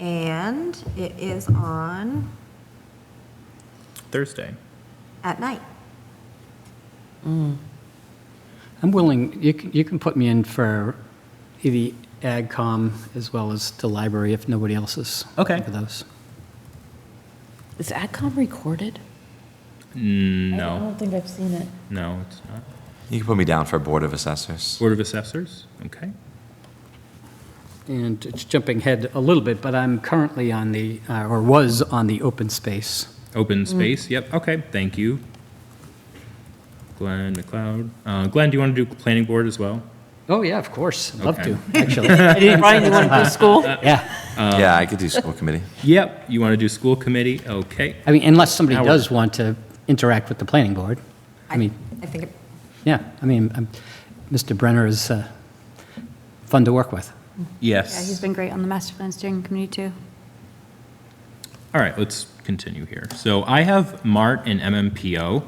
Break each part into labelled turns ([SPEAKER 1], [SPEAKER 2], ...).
[SPEAKER 1] And it is on
[SPEAKER 2] Thursday.
[SPEAKER 1] at night.
[SPEAKER 3] I'm willing, you can, you can put me in for the AgCom as well as the library if nobody else is.
[SPEAKER 2] Okay.
[SPEAKER 3] For those.
[SPEAKER 4] Is AdCom recorded? I
[SPEAKER 2] Mm, No,
[SPEAKER 4] don't think I've seen it.
[SPEAKER 2] no, it's not.
[SPEAKER 5] You can put me down for Board of Assessors.
[SPEAKER 2] Board of Assessors, okay.
[SPEAKER 3] And it's jumping ahead a little bit, but I'm currently on the, uh, or was on the open space.
[SPEAKER 2] Open
[SPEAKER 4] Mm.
[SPEAKER 2] Space, yep, okay, thank you. Glenn McLeod. Uh, Glenn, do you want to do Planning Board as well?
[SPEAKER 3] Oh, yeah, of course. I'd love
[SPEAKER 2] Okay.
[SPEAKER 3] to, actually.
[SPEAKER 4] Brian, you want to go to school?
[SPEAKER 3] Uh-huh. Yeah.
[SPEAKER 5] Yeah, I could do school committee.
[SPEAKER 2] Yep, you want to do School Committee, okay.
[SPEAKER 3] I mean, unless somebody
[SPEAKER 2] Howard.
[SPEAKER 3] does want to interact with the planning board. I mean,
[SPEAKER 1] I think it-
[SPEAKER 3] yeah, I mean, I'm- Mr. Brenner is uh, fun to work with.
[SPEAKER 6] Yeah, he's
[SPEAKER 2] Yes.
[SPEAKER 6] been great on the master plan steering committee, too.
[SPEAKER 2] All right, let's continue here. So I have MART and MMPO.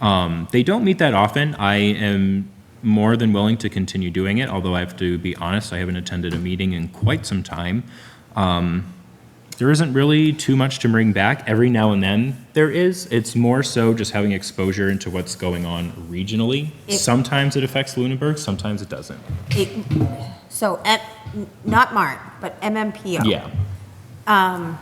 [SPEAKER 2] Um, they don't meet that often. I am more than willing to continue doing it, although I have to be honest, I haven't attended a meeting in quite some time. Um, there isn't really too much to bring back. Every now and then there is. It's more so just having exposure into what's going on regionally.
[SPEAKER 1] It-
[SPEAKER 2] sometimes it affects Lunenburg, sometimes it doesn't.
[SPEAKER 1] it- So, at- not MART, but MMPO.
[SPEAKER 2] Yeah.
[SPEAKER 1] Um,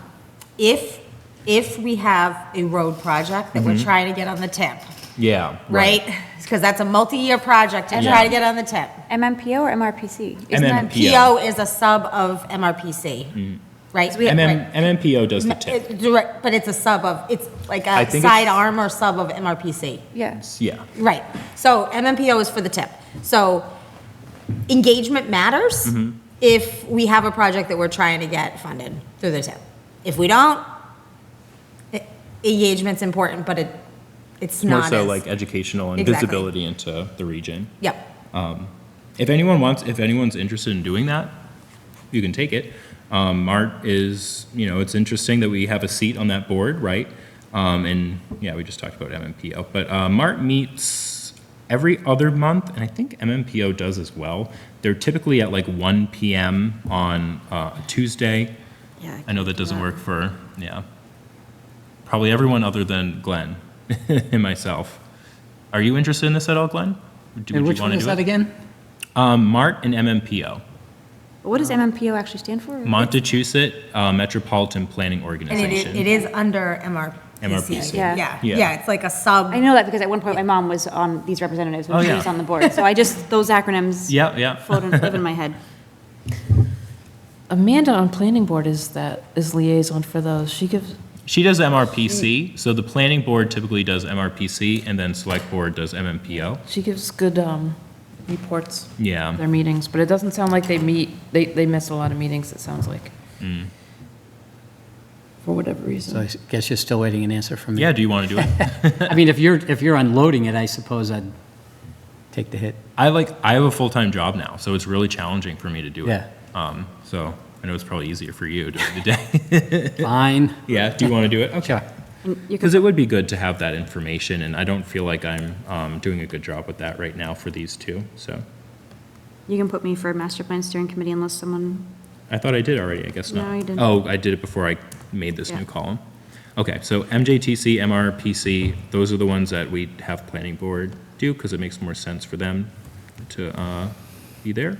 [SPEAKER 1] If, if we have a road project that we're
[SPEAKER 2] Mm-hmm.
[SPEAKER 1] trying to get on the tip,
[SPEAKER 2] Yeah.
[SPEAKER 1] right? Because that's a multi-year project to try
[SPEAKER 2] Yeah.
[SPEAKER 1] to get on the tip.
[SPEAKER 6] MMPO or MRPC?
[SPEAKER 2] And
[SPEAKER 6] Isn't
[SPEAKER 2] then
[SPEAKER 6] that,
[SPEAKER 1] PO is a sub of MRPC, right? Right.
[SPEAKER 2] MM, MMPO does the tip.
[SPEAKER 1] It's direct- But it's a sub of, it's like
[SPEAKER 2] I
[SPEAKER 1] a
[SPEAKER 2] think it's-
[SPEAKER 1] sidearm or sub of MRPC.
[SPEAKER 6] yeah.
[SPEAKER 2] Yeah.
[SPEAKER 1] Right. So MMPO is for the tip. So engagement matters
[SPEAKER 2] Mm-hmm.
[SPEAKER 1] if we have a project that we're trying to get funded through the tip. If we don't, e- engagement's important, but it, it's
[SPEAKER 2] More
[SPEAKER 1] not
[SPEAKER 2] so
[SPEAKER 1] as-
[SPEAKER 2] like educational and
[SPEAKER 1] Exactly.
[SPEAKER 2] visibility into the region.
[SPEAKER 1] Yep.
[SPEAKER 2] If anyone wants, if anyone's interested in doing that, you can take it. Um, Mart is, you know, it's interesting that we have a seat on that board, right? Um, and yeah, we just talked about MMPO, but uh, Mart meets every other month, and I think MMPO does as well. They're typically at like 1 p.m. on uh, Tuesday.
[SPEAKER 1] Yeah, I
[SPEAKER 2] I know that doesn't work for yeah, probably everyone other than Glenn and myself. Are you interested in this at all, Glenn? Do,
[SPEAKER 3] And
[SPEAKER 2] would
[SPEAKER 3] which
[SPEAKER 2] you
[SPEAKER 3] one
[SPEAKER 2] want to
[SPEAKER 3] is
[SPEAKER 2] do
[SPEAKER 3] that
[SPEAKER 2] it?
[SPEAKER 3] again?
[SPEAKER 2] Um, Mart and MMPO.
[SPEAKER 6] What does MMPO actually stand for?
[SPEAKER 2] Montechusett uh, Metropolitan Planning
[SPEAKER 1] And it is,
[SPEAKER 2] Organization.
[SPEAKER 1] it is under MRPC.
[SPEAKER 2] MRPC.
[SPEAKER 6] Yeah.
[SPEAKER 1] Yeah,
[SPEAKER 2] Yeah.
[SPEAKER 1] yeah, it's like a sub.
[SPEAKER 6] I know that because at one point my mom was on these representatives
[SPEAKER 2] Oh,
[SPEAKER 6] when she
[SPEAKER 2] yeah.
[SPEAKER 6] was on the board. So I just, those acronyms
[SPEAKER 2] Yeah, yeah.
[SPEAKER 6] float and live in my head.
[SPEAKER 4] Amanda on planning board is that, is liaison for those. She gives,
[SPEAKER 2] She does
[SPEAKER 1] Mm-hmm.
[SPEAKER 2] MRPC, so the planning board typically does MRPC, and then select board does MMPO.
[SPEAKER 4] she gives good um, reports,
[SPEAKER 2] Yeah,
[SPEAKER 4] their meetings, but it doesn't sound like they meet, they, they miss a lot of meetings, it sounds like. For whatever
[SPEAKER 3] So I
[SPEAKER 4] reason.
[SPEAKER 3] s- guess you're still waiting an answer from me.
[SPEAKER 2] yeah, do you want to do it?
[SPEAKER 3] I mean, if you're, if you're unloading it, I suppose I'd take the hit.
[SPEAKER 2] I like, I have a full-time job now, so it's really challenging for me to do it.
[SPEAKER 3] Yeah.
[SPEAKER 2] Um, so I know it's probably easier for you during the day.
[SPEAKER 3] Fine.
[SPEAKER 2] Yeah, do you want to do it? Okay.
[SPEAKER 3] Sure.
[SPEAKER 6] You could
[SPEAKER 2] Because it would be good to have that information, and I don't feel like I'm um, doing a good job with that right now for these two, so.
[SPEAKER 6] You can put me for master plan steering committee unless someone,
[SPEAKER 2] I thought I did already, I guess not.
[SPEAKER 6] No, you didn't.
[SPEAKER 2] Oh, I did it before I made this
[SPEAKER 6] Yeah.
[SPEAKER 2] new column. Okay, so MJTC, MRPC, those are the ones that we have planning board do, because it makes more sense for them to uh, be there.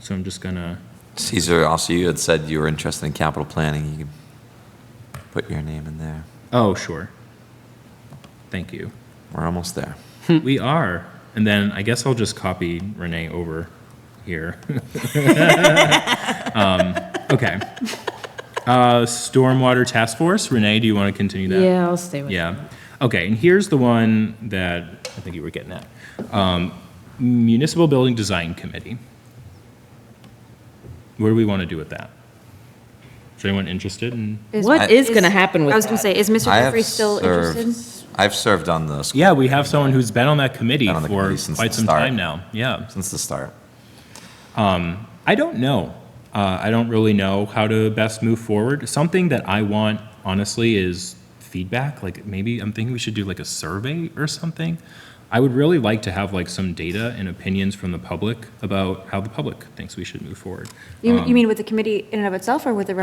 [SPEAKER 2] So I'm just gonna,
[SPEAKER 5] Caesar, also, you had said you were interested in capital planning. You could put your name in there.
[SPEAKER 2] oh, sure. Thank you.
[SPEAKER 5] We're almost there.
[SPEAKER 2] We are. And then I guess I'll just copy Renee over here. um, okay. Uh, Stormwater Task Force, Renee, do you want to continue that?
[SPEAKER 4] Yeah, I'll stay with it.
[SPEAKER 2] Yeah. Okay, and here's the one that I think you were getting at. Um, Municipal Building Design Committee. What do we want to do with that? Is anyone interested in?
[SPEAKER 4] What
[SPEAKER 5] I-
[SPEAKER 4] is going to happen with
[SPEAKER 6] I was going to
[SPEAKER 4] that?
[SPEAKER 6] say, is Mr.
[SPEAKER 5] I have
[SPEAKER 6] Jeffrey still
[SPEAKER 5] served-
[SPEAKER 6] interested?
[SPEAKER 5] I've served on the school
[SPEAKER 2] Yeah, we have someone who's been on that committee
[SPEAKER 5] Been on the
[SPEAKER 2] for
[SPEAKER 5] committee since
[SPEAKER 2] quite
[SPEAKER 5] the
[SPEAKER 2] some
[SPEAKER 5] start.
[SPEAKER 2] time now. Yeah.
[SPEAKER 5] since the start.
[SPEAKER 2] I don't know. Uh, I don't really know how to best move forward. Something that I want, honestly, is feedback. Like maybe I'm thinking we should do like a survey or something. I would really like to have like some data and opinions from the public about how the public thinks we should move forward.
[SPEAKER 5] um,
[SPEAKER 6] You you mean with the committee in and of itself or with the